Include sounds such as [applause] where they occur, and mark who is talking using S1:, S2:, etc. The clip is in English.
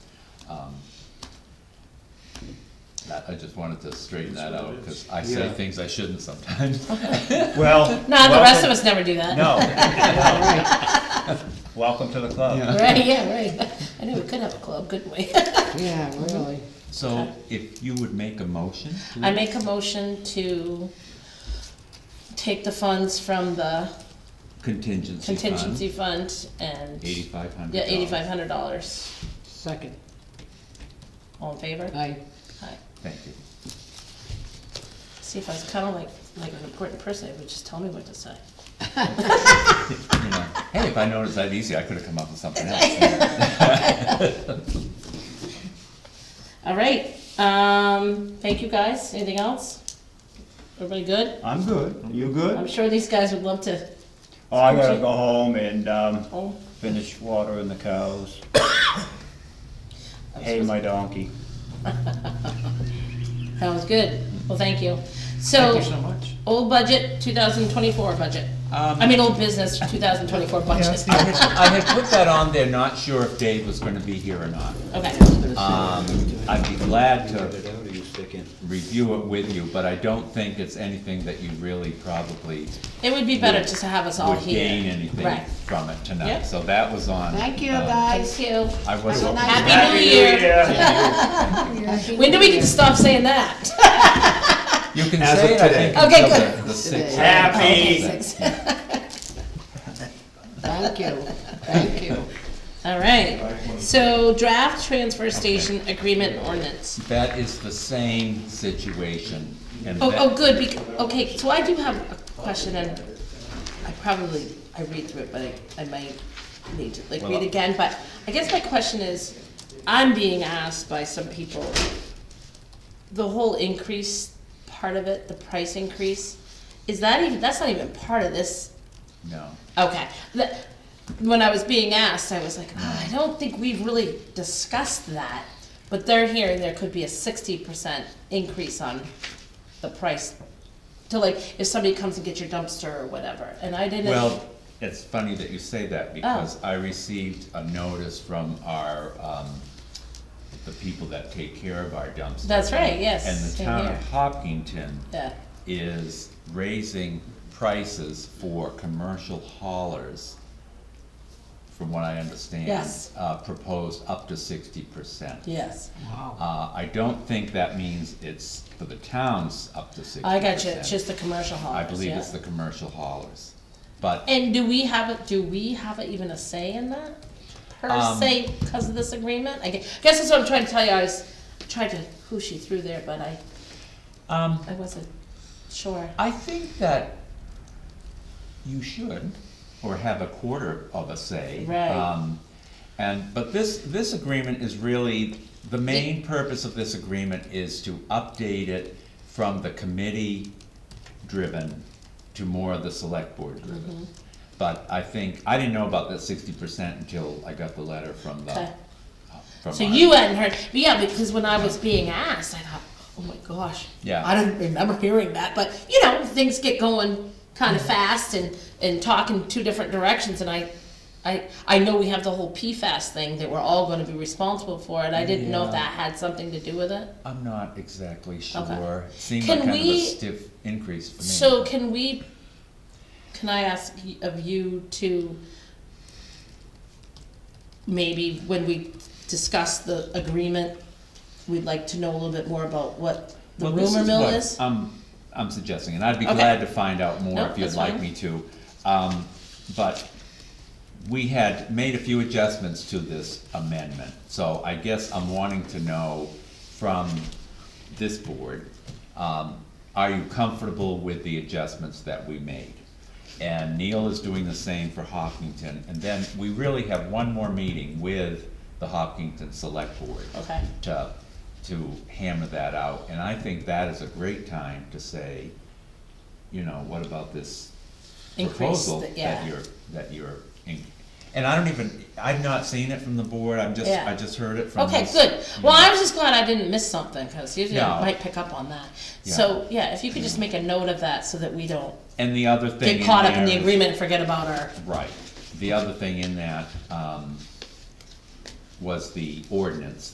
S1: Um, I, I just wanted to straighten that out, because I say
S2: Yeah.
S1: things I shouldn't [laughs] sometimes.
S3: Well.
S4: No, [laughs] the rest
S3: welcome-
S4: of us never do that.
S3: No. Welcome to the club.
S4: [laughs] Right, yeah, right. [laughs] I knew we could have a club, couldn't we? [laughs]
S2: Yeah, really.
S1: So if you would make a motion,
S4: I make a motion to take the funds from the
S1: contingency
S4: contingency
S1: fund,
S4: fund and,
S1: eighty-five hundred
S4: yeah, eighty-five hundred dollars.
S2: Second,
S4: All in favor?
S2: I,
S4: Aye.
S1: Thank you.
S4: See, if I was kinda like, like an important person, they would just tell me what to [laughs] say.
S1: You know, Hey, if I noticed that easy, I could've come up with something [laughs] else.
S4: All right, um, thank you guys. Anything else? Everybody good?
S3: I'm good. You
S4: I'm
S3: good?
S4: sure these guys would love to,
S3: Oh, I gotta go home and, um,
S4: oh,
S3: finish watering the cows.
S4: I'm
S3: Hay my donkey.
S4: that was good. Well, thank you.
S3: Thank
S4: So,
S3: you so much.
S4: old budget, two thousand twenty-four budget. I mean, old business, two thousand twenty-four budget.
S1: I had, I had put that on there, not sure if Dave was gonna be here or not.
S4: Okay,
S1: Um, I'd be glad to
S5: How do you stick in?
S1: review it with you, but I don't think it's anything that you really probably
S4: it would be better just to have us all
S1: would gain
S4: here.
S1: anything
S4: Right.
S1: from it tonight,
S4: Yep.
S1: so that was on.
S2: thank you,
S1: um,
S2: guys.
S4: Thank [laughs] you.
S1: I was.
S2: Have a nice
S4: Happy New Year. [laughs] When do we get to stop saying that? [laughs]
S1: You can
S5: As
S1: say
S5: of
S1: it, I
S5: today.
S1: think,
S4: Okay,
S1: until
S4: good.
S1: the, the sixth.
S2: Today.
S3: Happy.
S2: Thank you, thank you.
S4: All right, so draft transfer station agreement ordinance.
S1: That is the same situation, and
S4: Oh, oh,
S1: that,
S4: good, bec- okay, so I do have a question and I probably, I read through it, but I, I might need to like read again, but I guess my question is, I'm being asked by some people, the whole increase part of it, the price increase, is that even, that's not even part of this
S1: no,
S4: Okay. The- When I was being asked, I was like, "Oh, I don't think we've really discussed that. But they're hearing there could be a sixty percent increase on the price to like, if somebody comes and gets your dumpster or whatever, and Oh. I didn't.
S1: well, it's funny that you say that, because I received a notice from our, um, the people that take care of our dumpsters.
S4: That's right, yes,
S1: And the
S4: same
S1: town
S4: here.
S1: of Hopkinton
S4: Yeah,
S1: is raising prices for commercial haulers, from what I understand.
S4: Yes.
S1: Uh, proposed up to sixty percent.
S4: yes,
S1: Uh, I don't think that means it's for the towns up to sixty
S4: I got you, it's just the commercial
S1: I
S4: haulers,
S1: believe it's
S4: yeah.
S1: the commercial haulers, but,
S4: And do we have a, do we have a- even a say in that? Per
S1: Um,
S4: se, because of this agreement? I gue- guess that's what I'm trying to tell you, I was trying to whoosh you through there, but I,
S1: um,
S4: I wasn't sure.
S1: I think that you should, or have a quarter of a say.
S4: Right.
S1: Um, And, but this, this agreement is really, the main purpose of this agreement is to update it from the committee-driven to more of the select
S4: Mm-hmm.
S1: board-driven. But I think, I didn't know about that sixty percent until I got the letter from the,
S4: Okay.
S1: from
S4: So
S1: our-
S4: you hadn't heard, but yeah, because when I was being asked, I thought, oh my gosh.
S1: Yeah.
S4: I don't remember hearing that, but you know, things get going
S1: Mm-hmm.
S4: kind of fast and, and talking two different directions and I, I, I know we have the whole PFAS thing that we're all gonna be responsible for and I didn't know if
S1: Yeah.
S4: that had something to do with it.
S1: I'm not exactly
S4: Okay.
S1: sure. Seemed
S4: Can
S1: like kind of a
S4: we-
S1: stiff increase for me.
S4: So can we, can I ask y- of you to maybe when we discuss the agreement, we'd like to know a little bit more about what the
S1: Well, this
S4: rumor mill
S1: what
S4: is?
S1: I'm, I'm suggesting, and I'd be
S4: Okay.
S1: glad to find out more
S4: No,
S1: if you'd
S4: that's
S1: like
S4: fine.
S1: me to. Um, but we had made a few adjustments to this amendment, so I guess I'm wanting to know from this board, um, are you comfortable with the adjustments that we made? And Neil is doing the same for Hopkinton, and then we really have one more meeting with the Hopkinton Select Board
S4: Okay.
S1: to, to hammer that out, and I think that is a great time to say, you know, what about this
S4: Increase
S1: proposal
S4: the-
S1: that
S4: yeah.
S1: you're, that you're, in- and I don't even, I've not seen it from the board, I'm just,
S4: Yeah.
S1: I just heard it from
S4: Okay,
S1: this-
S4: good. Well, I was just glad I didn't miss something, cause usually
S1: No.
S4: I might pick up on that. So, yeah, if you could just make a note of that so that we don't
S1: And the other thing
S4: get caught up
S1: there
S4: in the
S1: is-
S4: agreement and forget about our,
S1: Right, the other thing in that, um, was the ordinance